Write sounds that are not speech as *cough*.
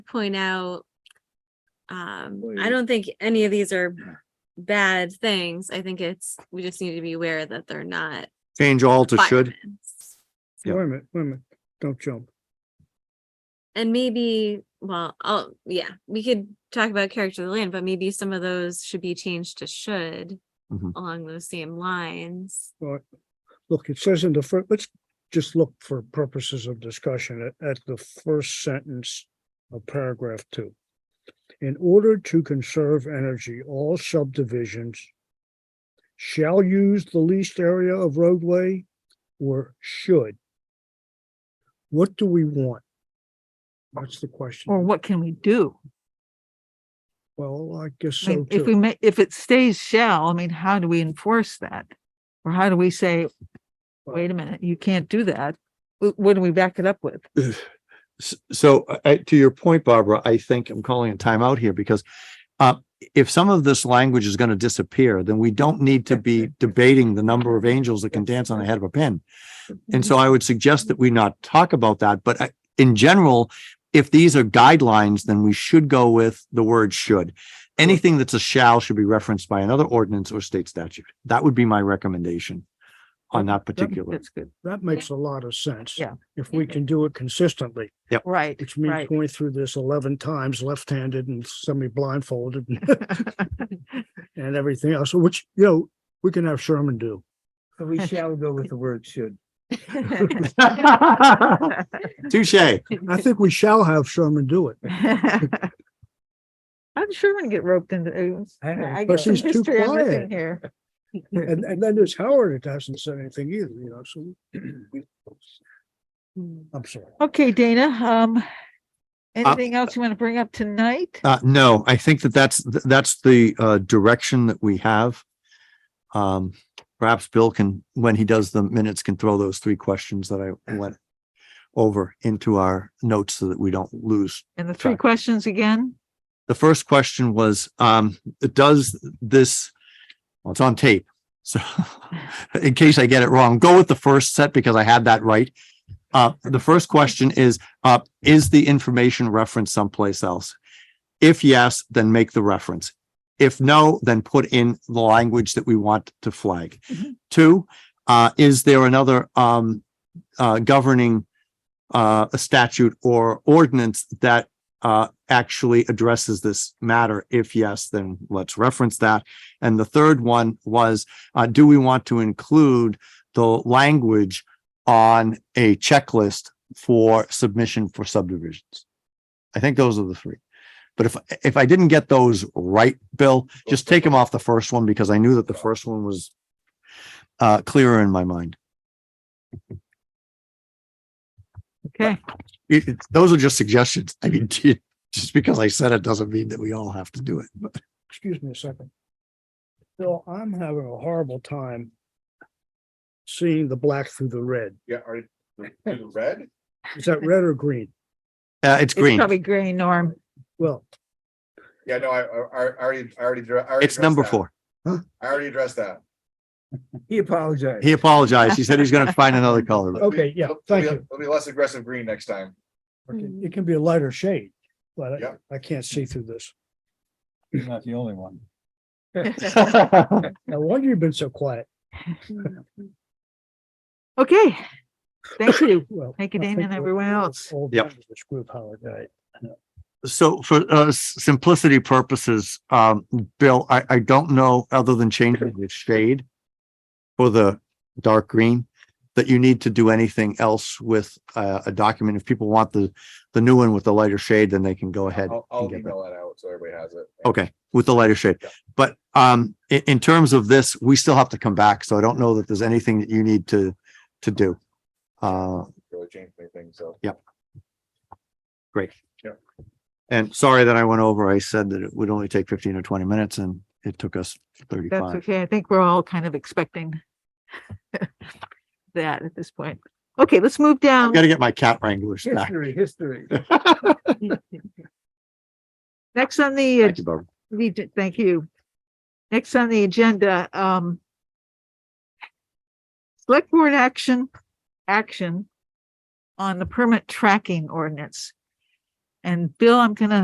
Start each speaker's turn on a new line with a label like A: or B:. A: point out, um,
B: Well,
A: I
B: you-
A: don't think any of these
B: *clears throat*
A: are bad things. I think it's, we just need to be aware that they're not.
C: Change all to should.
A: requirements.
C: Yeah.
B: Wait a minute, wait a minute, don't jump.
A: And maybe, well, oh, yeah, we could talk about character of the land, but maybe some of those should be changed to should
B: Mm-hmm.
C: Mhm.
A: along those same lines.
B: Well, Look, it says in the first, let's just look for purposes of discussion at, at the first sentence of paragraph two. In order to conserve energy, all subdivisions shall use the least area of roadway or should. What do we want? That's the
D: Or
B: question.
D: what can we do?
B: Well, I guess
D: I mean,
B: so
D: If we
B: too.
D: make, if it stays shall, I mean, how do we enforce that? Or how do we say, wait a minute, you can't do that? Wh- What do we back it up with?
C: S- So uh, uh, to your point, Barbara, I think I'm calling a timeout here because uh, if some of this language is going to disappear, then we don't need to be debating the number of angels that can dance on the head of a pin. And so I would suggest that we not talk about that, but I- in general, if these are guidelines, then we should go with the word should. Anything that's a shall should be referenced by another ordinance or state statute. That would be my recommendation on that particular.
D: That's good.
B: That makes a lot of sense.
D: Yeah.
B: If we can do it consistently.
D: Right,
B: It's me *laughs*
D: right.
B: going through this eleven times left-handed and semi-blindfolded and- and everything else, which, you know, we can have Sherman do.
E: So we shall go with the word should.
C: Touche.
B: I think we shall have Sherman do
E: *laughs*
B: it.
D: I'm sure *laughs* I'm gonna get roped into this.
E: I know,
D: I
B: but
D: got some
B: she's too
D: *laughs* history I'm missing
B: quiet.
D: here.
B: *laughs* And, and then there's Howard, it hasn't said anything either, you know, so. we- I'm sorry.
D: Okay, Dana, um, anything else you want to bring up tonight?
C: Uh, no, I think that that's, th- that's the, uh, direction that we have. Um, perhaps Bill can, when he does the minutes, can throw those three questions that I went over into our notes so that we don't lose.
D: And the three
C: Sorry.
D: questions again?
C: The first question was, um, does this, well, it's on tape. So *laughs* in case I get it wrong, go with the first set because I had that right. Uh, the first question is, uh, is the information referenced someplace else? If yes, then make the reference. If no, then put in the language that we want to flag.
D: Mhm.
C: Two, uh, is there another, um, uh, governing, uh, a statute or ordinance that, uh, actually addresses this matter? If yes, then let's reference that. And the third one was, uh, do we want to include the language on a checklist for submission for subdivisions? I think those are the three. But if, if I didn't get those right, Bill, just take them off the first one because I knew that the first one was uh, clearer in my mind.
D: Okay,
C: It, it- those are just suggestions. I mean, *laughs* just because I said it doesn't mean that we all have to do it, but.
B: Excuse me a second. Bill, I'm having a horrible time seeing the black through the red.
F: Yeah,
B: *laughs*
F: are the the red?
B: Is that red or green?
C: Uh, it's
D: it's
C: green.
D: probably gray, Norm.
B: Well,
F: Yeah, no, I, I, I already, I already. dra- I already
C: It's
F: addressed
C: number
F: that.
C: four.
F: I already addressed that.
E: He apologized.
C: He apologized. He said he's going to find another color.
F: It'll be-
B: Okay, yeah,
F: it'll be-
B: thank you.
F: It'll be less aggressive green next time.
D: Mm-hmm.
A: Mm.
B: it can be a lighter shade, but I-
F: Yeah.
B: I can't see through this.
E: He's not the only one.
B: *laughs* No wonder you've been so quiet.
D: Okay, thank
B: *laughs*
D: you.
B: Well,
D: Thank you,
B: I
D: Dana,
B: think
D: and
B: we're
D: everyone
B: all-
D: else.
B: all
C: Yep.
B: done with This group, Howard, right?
C: So for uh s- simplicity purposes, um, Bill, I I don't know, other than changing the shade for the dark green, that you need to do anything else with uh a document. If people want the the new one with the lighter shade, then they can go ahead.
F: I'll,
C: and
F: I'll
C: get that. Oh.
F: email that out so everybody has it.
C: Okay, with the lighter shade. But um, in in terms of this, we still have to come back, so I don't know that there's anything that you need to to do. Uh,
F: Really changed anything, so.
C: and sorry that I went over. I said that it would only take fifteen or twenty minutes and it took us
D: That's
C: thirty-five.
D: okay. I think we're all kind of expecting *laughs* that at this point. Okay, let's move down.
C: Gotta get my cat wranglers back.
E: History, history.
B: *laughs*
D: Next on the, ag-
C: Thank you, Barbara.
D: we did- thank you. Next on the agenda, um, select board action, action on the permit tracking ordinance. And Bill, I'm gonna